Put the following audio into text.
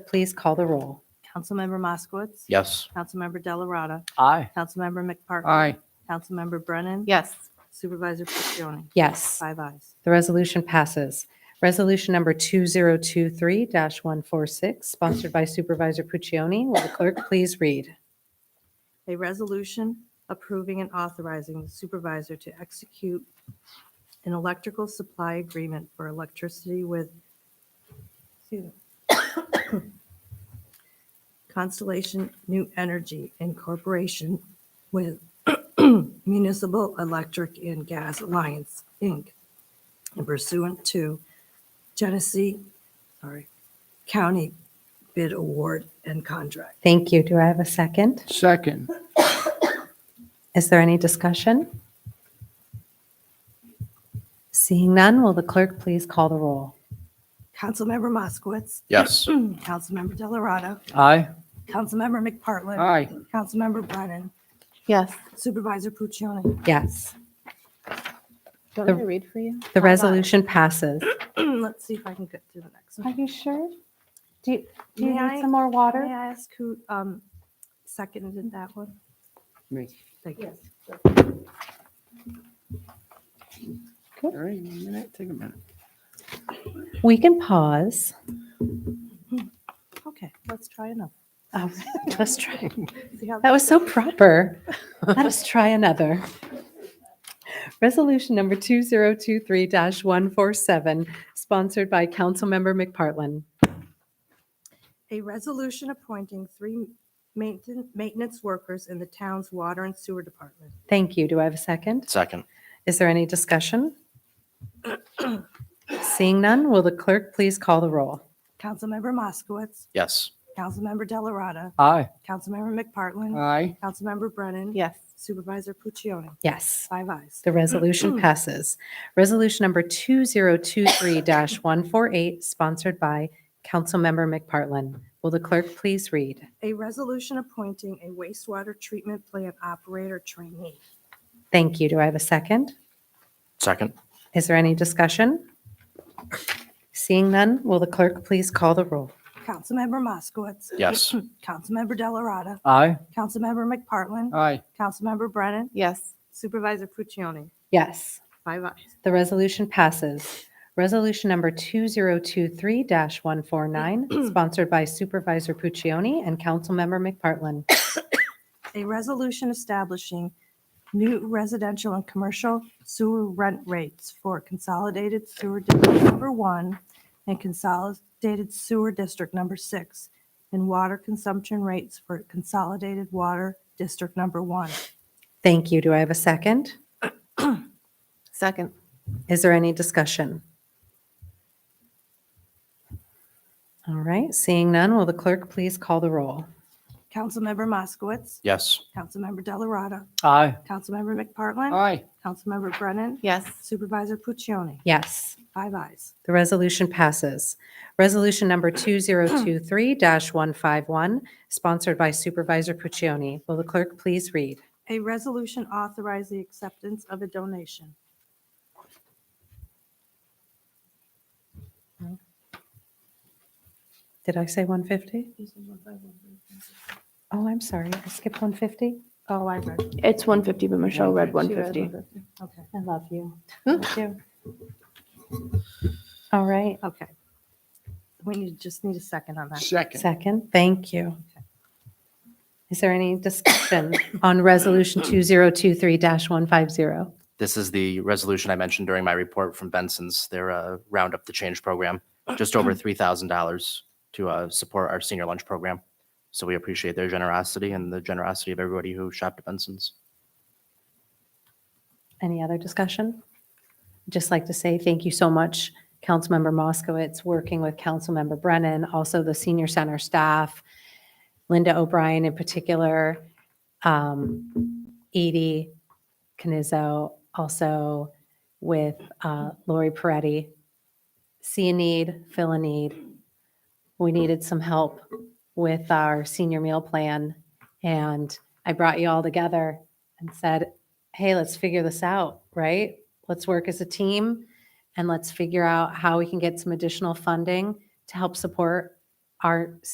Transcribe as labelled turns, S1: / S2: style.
S1: Please call the roll.
S2: Councilmember Moskowitz.
S3: Yes.
S2: Councilmember Delarada.
S3: Aye.
S2: Councilmember McPartland.
S4: Aye.
S2: Councilmember Brennan.
S5: Yes.
S2: Supervisor Puccioni.
S1: Yes,
S2: Five ayes.
S1: the resolution passes. Resolution number 2023-146, sponsored by Supervisor Puccioni. Will the clerk please read?
S2: A resolution approving and authorizing the supervisor to execute an electrical supply agreement for electricity with excuse me, Constellation New Energy Incorporation with Municipal Electric and Gas Alliance, Inc. and pursuant to Genesee, sorry, County Bid Award and Contract.
S1: Thank you. Do I have a second?
S4: Second.
S1: Is there any discussion? Seeing none, will the clerk please call the roll?
S2: Councilmember Moskowitz.
S3: Yes.
S2: Councilmember Delarado.
S4: Aye.
S2: Councilmember McPartlin.
S4: Aye.
S2: Councilmember Brennan.
S5: Yes.
S2: Supervisor Puccioni.
S1: Yes,
S5: Do you
S1: The-
S5: want me to read for you?
S1: the resolution passes.
S2: Let's see if I can get through the next
S1: Are
S2: one.
S1: you sure? Do you do you
S2: May
S1: need
S2: I-
S1: some more water?
S2: May I ask who um, seconded that one?
S4: Me.
S2: Thank you.
S4: All right, a minute, take a minute.
S1: We can pause.
S2: Okay, let's try another.
S1: Oh, Let's try.
S2: See how
S1: That was so proper. Let us try another. Resolution number 2023-147, sponsored by Councilmember McPartlin.
S2: A resolution appointing three mainten- maintenance workers in the town's water and sewer department.
S1: Thank you. Do I have a second?
S3: Second.
S1: Is there any discussion? Seeing none, will the clerk please call the roll?
S2: Councilmember Moskowitz.
S3: Yes.
S2: Councilmember Delarada.
S4: Aye.
S2: Councilmember McPartlin.
S4: Aye.
S2: Councilmember Brennan.
S5: Yes.
S2: Supervisor Puccioni.
S1: Yes.
S2: Five ayes.
S1: The resolution passes. Resolution number 2023-148, sponsored by Councilmember McPartlin. Will the clerk please read?
S2: A resolution appointing a wastewater treatment plant operator trainee.
S1: Thank you. Do I have a second?
S3: Second.
S1: Is there any discussion? Seeing none, will the clerk please call the roll?
S2: Councilmember Moskowitz.
S3: Yes.
S2: Councilmember Delarada.
S4: Aye.
S2: Councilmember McPartlin.
S4: Aye.
S2: Councilmember Brennan.
S5: Yes.
S2: Supervisor Puccioni.
S1: Yes,
S2: Five ayes.
S1: the resolution passes. Resolution number 2023-149, sponsored by Supervisor Puccioni and Councilmember McPartlin.
S2: A resolution establishing new residential and commercial sewer rent rates for Consolidated Sewer District Number One and Consolidated Sewer District Number Six, and water consumption rates for Consolidated Water District Number One.
S1: Thank you. Do I have a second?
S5: Second.
S1: Is there any discussion? All right, seeing none, will the clerk please call the roll?
S2: Councilmember Moskowitz.
S3: Yes.
S2: Councilmember Delarada.
S4: Aye.
S2: Councilmember McPartlin.
S4: Aye.
S2: Councilmember Brennan.
S5: Yes.
S2: Supervisor Puccioni.
S1: Yes,
S2: Five ayes.
S1: the resolution passes. Resolution number 2023-151, sponsored by Supervisor Puccioni. Will the clerk please read?
S2: A resolution authorize the acceptance of a donation.
S1: Did I say 150? Oh, I'm sorry, I skipped 150?
S2: Oh, I read.
S6: It's 150, but Michelle read 150.
S2: Okay, Hmm?
S1: I love you.
S2: thank you.
S1: All right,
S2: Okay. We need, just need a second on that.
S4: Second.
S1: Second, thank you. Is there any discussion on Resolution 2023-150?
S3: This is the resolution I mentioned during my report from Benson's, their uh, Round Up the Change program, just over $3,000 to uh, support our senior lunch program. So we appreciate their generosity and the generosity of everybody who shopped at Benson's.
S1: Any other discussion? Just like to say thank you so much, Councilmember Moskowitz, working with Councilmember Brennan, also the senior center staff, Linda O'Brien in particular, um, Edie Canizzo, also with uh, Lori Peretti. See a need, fill a need. We needed some help with our senior meal plan, and I brought you all together and said, hey, let's figure this out, right? Let's work as a team and let's figure out how we can get some additional funding to help support our